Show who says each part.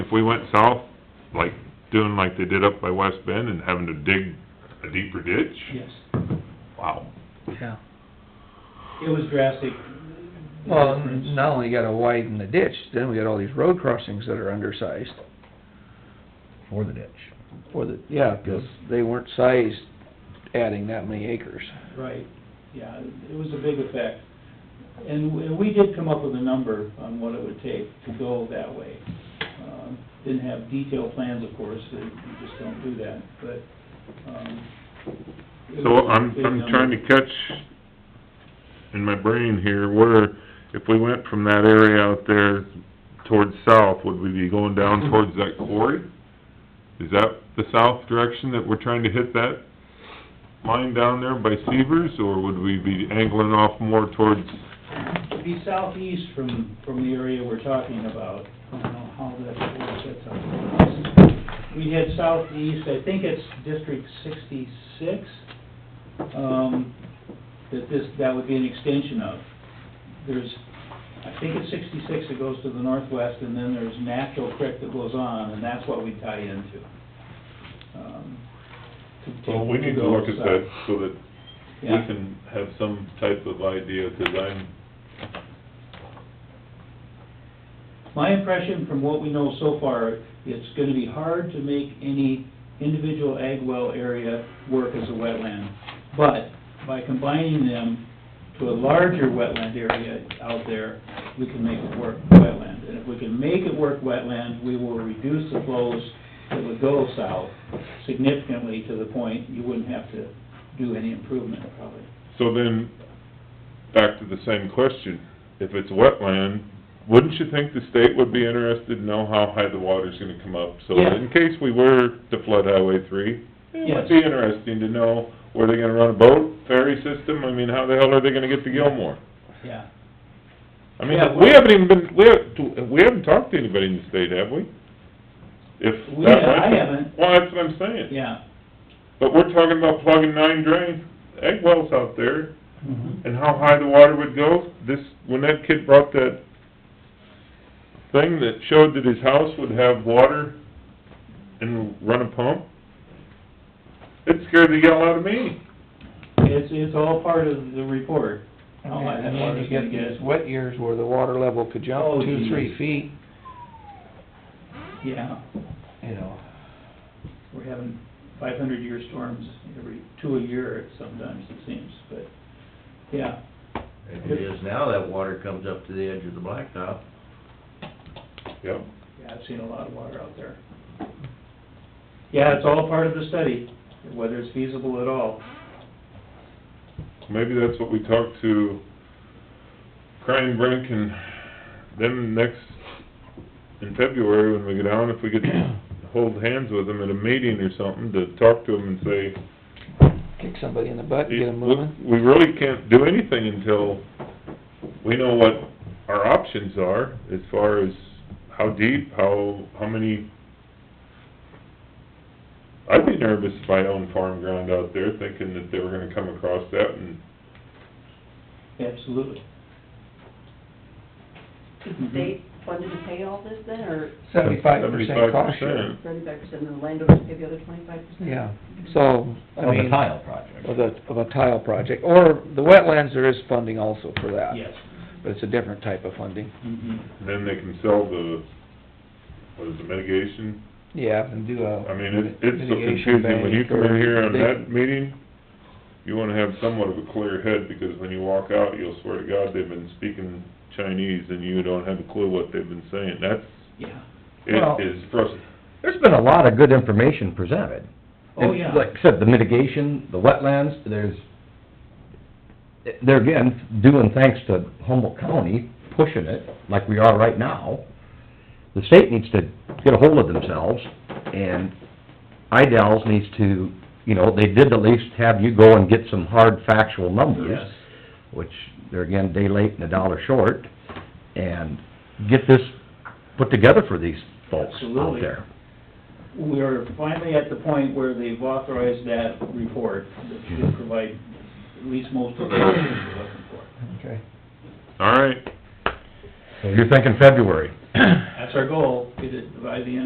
Speaker 1: if we went south, like, doing like they did up by West Bend and having to dig a deeper ditch?
Speaker 2: Yes,
Speaker 1: Wow.
Speaker 3: yeah.
Speaker 2: it was drastic.
Speaker 3: Well, n- not only gotta widen the ditch, then we got all these road crossings that are undersized
Speaker 4: for the ditch.
Speaker 3: for the, yeah, 'cause they weren't sized adding that many acres.
Speaker 2: Right, yeah, it was a big effect. And we- we did come up with a number on what it would take to go that way. Um, Didn't have detailed plans, of course, and you just don't do that, but, um... it
Speaker 1: So
Speaker 2: was a
Speaker 1: I'm,
Speaker 2: big
Speaker 1: I'm
Speaker 2: number.
Speaker 1: trying to catch in my brain here, where, if we went from that area out there towards south, would we be going down towards that quarry? Is that the south direction that we're trying to hit that line down there by Severs, or would we be angling off more towards,
Speaker 2: It'd be southeast from, from the area we're talking about. I don't know how that works, that's out. We head southeast, I think it's District sixty-six, um, that this, that would be an extension of. There's, I think it's sixty-six that goes to the northwest, and then there's Natural Creek that goes on, and that's what we tie into. Um, to take-
Speaker 1: Well, we need to
Speaker 2: go
Speaker 1: look at
Speaker 2: south.
Speaker 1: that so that we
Speaker 2: Yeah.
Speaker 1: can have some type of idea, 'cause I'm,
Speaker 2: My impression from what we know so far, it's gonna be hard to make any individual ag well area work as a wetland. But by combining them to a larger wetland area out there, we can make it work wetland. And if we can make it work wetland, we will reduce the flows that would go south significantly to the point you wouldn't have to do any improvement probably.
Speaker 1: So then, back to the same question, if it's wetland, wouldn't you think the state would be interested to know how high the water's gonna come up? So
Speaker 2: Yeah.
Speaker 1: in case we were to flood Highway three, it
Speaker 2: Yes.
Speaker 1: would be interesting to know, were they gonna run a boat, ferry system? I mean, how the hell are they gonna get to Gilmore?
Speaker 2: Yeah.
Speaker 1: I mean,
Speaker 2: Yeah,
Speaker 1: we
Speaker 2: well-
Speaker 1: haven't even been, we haven't, we haven't talked to anybody in the state, have we? If
Speaker 2: We-
Speaker 1: that
Speaker 2: I
Speaker 1: went-
Speaker 2: haven't.
Speaker 1: Well, that's what I'm saying.
Speaker 2: Yeah.
Speaker 1: But we're talking about plugging nine drains, egg wells out there,
Speaker 3: Mm-hmm.
Speaker 1: and how high the water would go, this, when that kid brought that thing that showed that his house would have water and run a pump, it scared the hell out of me.
Speaker 2: It's, it's all part of the report. How high that
Speaker 3: And then you
Speaker 2: water's gonna
Speaker 3: get
Speaker 2: get.
Speaker 3: these wet years where the water level could
Speaker 2: Oh,
Speaker 3: jump two,
Speaker 2: geez.
Speaker 3: three feet,
Speaker 2: Yeah.
Speaker 3: you know.
Speaker 2: We're having five hundred year storms every, two a year sometimes it seems, but, yeah.
Speaker 4: If it is now, that water comes up to the edge of the blacktop.
Speaker 1: Yep.
Speaker 2: Yeah, I've seen a lot of water out there. Yeah, it's all part of the study, whether it's feasible at all.
Speaker 1: Maybe that's what we talked to Crane Brink and them next, in February when we go down, if we could hold hands with them at a meeting or something, to talk to them and say,
Speaker 3: Kick somebody in the butt, and get them moving.
Speaker 1: We really can't do anything until we know what our options are as far as how deep, how, how many... I'd be nervous if I owned farm ground out there, thinking that they were gonna come across that and,
Speaker 2: Absolutely. Mm-hmm.
Speaker 5: Is
Speaker 3: Mm-hmm.
Speaker 5: the state funded to pay all this then, or
Speaker 3: Seventy-five percent cost
Speaker 1: 75%.
Speaker 3: share.
Speaker 5: thirty-five percent and the landowners pay the other twenty-five percent?
Speaker 3: Yeah, so, I mean...
Speaker 4: Of a tile project.
Speaker 3: Of a, of a tile project, or the wetlands, there is funding also for that.
Speaker 2: Yes.
Speaker 3: But it's a different type of funding.
Speaker 2: Mhm.
Speaker 1: then they can sell the, what is it, mitigation?
Speaker 3: Yeah, and do a...
Speaker 1: I mean, it, it's so
Speaker 3: mitigation
Speaker 1: confusing, when you
Speaker 3: bank
Speaker 1: come in
Speaker 3: or
Speaker 1: here on
Speaker 3: they-
Speaker 1: that meeting, you wanna have somewhat of a clear head, because when you walk out, you'll swear to God, they've been speaking Chinese, and you don't have a clue what they've been saying, that's,
Speaker 2: Yeah.
Speaker 4: Well-
Speaker 1: it is frustrating.
Speaker 4: There's been a lot of good information presented.
Speaker 2: Oh,
Speaker 4: It's
Speaker 2: yeah.
Speaker 4: Like I said, the mitigation, the wetlands, there's, they're again, doing thanks to Humboldt County pushing it, like we are right now. The state needs to get a hold of themselves, and IDALs needs to, you know, they did at least have you go and get some hard factual numbers.
Speaker 2: Yes.
Speaker 4: Which, they're again, day late and a dollar short, and get this put together for these folks out
Speaker 2: Absolutely.
Speaker 4: there.
Speaker 2: We are finally at the point where they've authorized that report that should provide at least most of the information we're looking for.
Speaker 3: Okay.
Speaker 1: All right,
Speaker 4: So You're thinking February?
Speaker 2: That's our goal, get it by the end